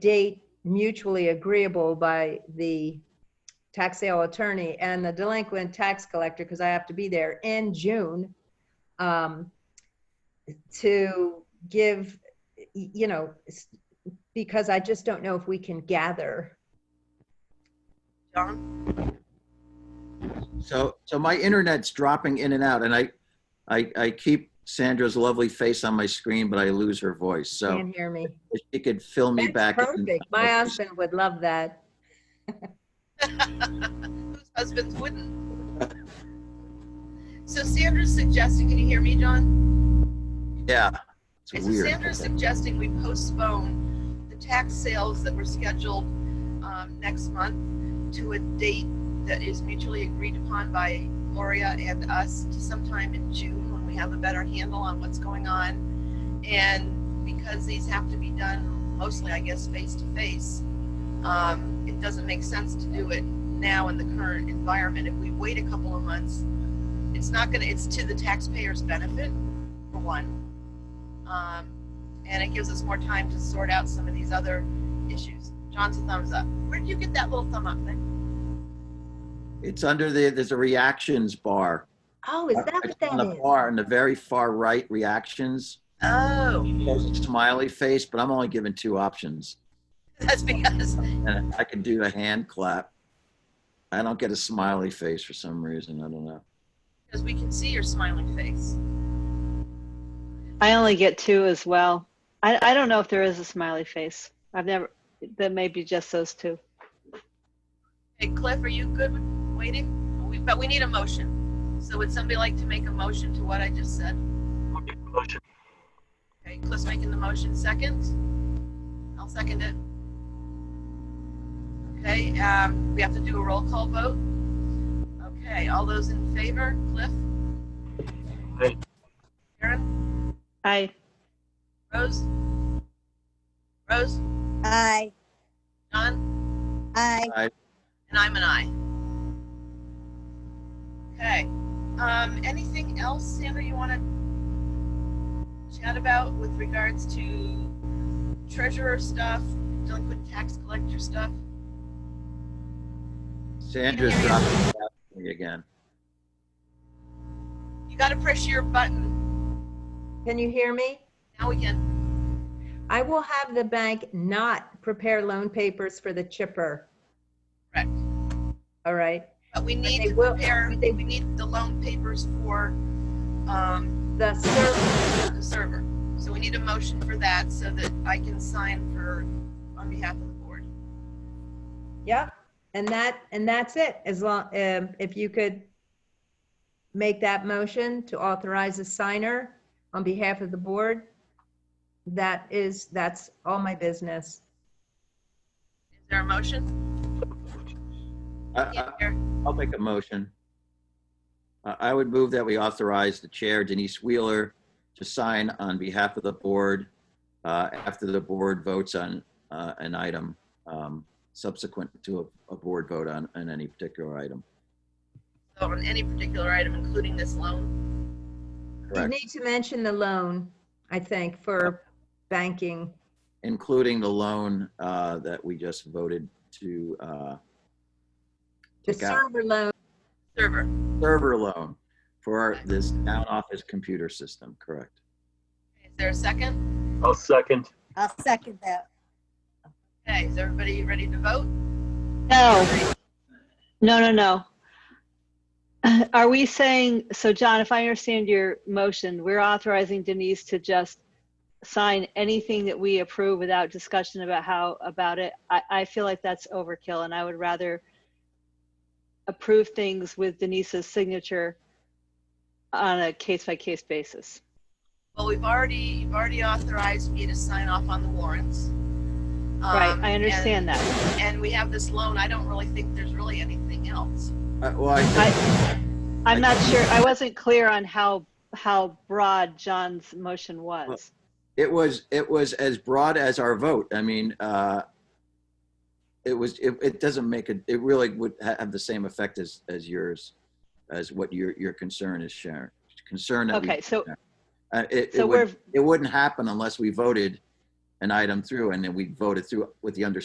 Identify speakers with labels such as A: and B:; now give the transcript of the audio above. A: date mutually agreeable by the tax sale attorney and the delinquent tax collector, because I have to be there in June, um, to give, y- you know, s- because I just don't know if we can gather.
B: John?
C: So, so my internet's dropping in and out, and I, I, I keep Sandra's lovely face on my screen, but I lose her voice. So
A: Can't hear me.
C: if she could fill me
A: That's
C: back. in.
A: Perfect. My husband would love that.
B: Whose husbands wouldn't? So Sandra's suggesting, can you hear me, John?
C: Yeah, it's
B: Okay, So
C: weird.
B: Sandra's suggesting we postpone the tax sales that were scheduled um, next month to a date that is mutually agreed upon by Moria and us to sometime in June when we have a better handle on what's going on. And because these have to be done mostly, I guess, face to face, um, it doesn't make sense to do it now in the current environment. If we wait a couple of months, it's not gonna, it's to the taxpayer's benefit, for one. Um, and it gives us more time to sort out some of these other issues. John's a thumbs up. Where did you get that little thumb up thing?
C: It's under the, there's a reactions bar.
A: Oh, is that what
C: It's on the
A: that is?
C: bar in the very far right, reactions.
B: Oh,
C: There's a smiley face, but I'm only given two options.
B: that's because,
C: And I can do a hand clap. I don't get a smiley face for some reason. I don't know.
B: because we can see your smiling face.
D: I only get two as well. I, I don't know if there is a smiley face. I've never, that may be just those two.
B: Hey, Cliff, are you good with waiting? We- But we need a motion. So would somebody like to make a motion to what I just said? Okay, Cliff's making the motion second. I'll second it. Okay, um, we have to do a roll call vote. Okay, all those in favor, Cliff?
E: Aye.
B: Karen,
D: I,
B: Rose? Rose,
F: Aye,
B: John?
F: aye.
B: And I'm an I. Okay. Um, anything else, Sandra, you want to chat about with regards to treasurer stuff, delinquent tax collector stuff?
C: Sandra's dropping out on me again.
B: You got to press your button.
A: Can you hear me?
B: Now we can.
A: I will have the bank not prepare loan papers for the chipper.
B: Correct.
A: All right.
B: But we need
A: they
B: to
A: will-
B: prepare,
A: they-
B: we need the loan papers for um,
A: The server,
B: the server. So we need a motion for that so that I can sign for, on behalf of the board.
A: yep. And that, and that's it. As long, um, if you could make that motion to authorize a signer on behalf of the board, that is, that's all my business.
B: Is there a motion?
C: I- I-
B: Yeah, there.
C: I'll make a motion. I Uh, I would move that we authorize the chair, Denise Wheeler, to sign on behalf of the board uh, after the board votes on uh, an item um, subsequent to a a board vote on, on any particular item.
B: So on any particular item, including this loan?
A: You
C: Correct.
A: need to mention the loan, I think, for banking.
C: Including the loan uh, that we just voted to, uh,
A: The
C: Take out.
A: server loan,
B: server.
C: server loan for this town office computer system, correct?
B: Is there a second?
E: I'll second.
F: I'll second that.
B: Okay, is everybody ready to vote?
D: no, no, no, no. Are we saying, so John, if I understand your motion, we're authorizing Denise to just sign anything that we approve without discussion about how, about it? I, I feel like that's overkill and I would rather approve things with Denise's signature on a case by case basis.
B: Well, we've already, you've already authorized me to sign off on the warrants.
D: Right,
B: Um,
D: I understand that.
B: And, and we have this loan. I don't really think there's really anything else.
C: Uh, Well, I think
D: I, I'm not sure, I wasn't clear on how, how broad John's motion was.
C: it was it was as broad as our vote i mean uh it was it, it doesn't make it it really would ha- have the same effect as as yours as what your your concern is sharon concern that we-
D: Okay, so,
C: uh, it, it
D: so
C: would,
D: we're,
C: it wouldn't happen unless we voted an item through and then we vote it through with the understanding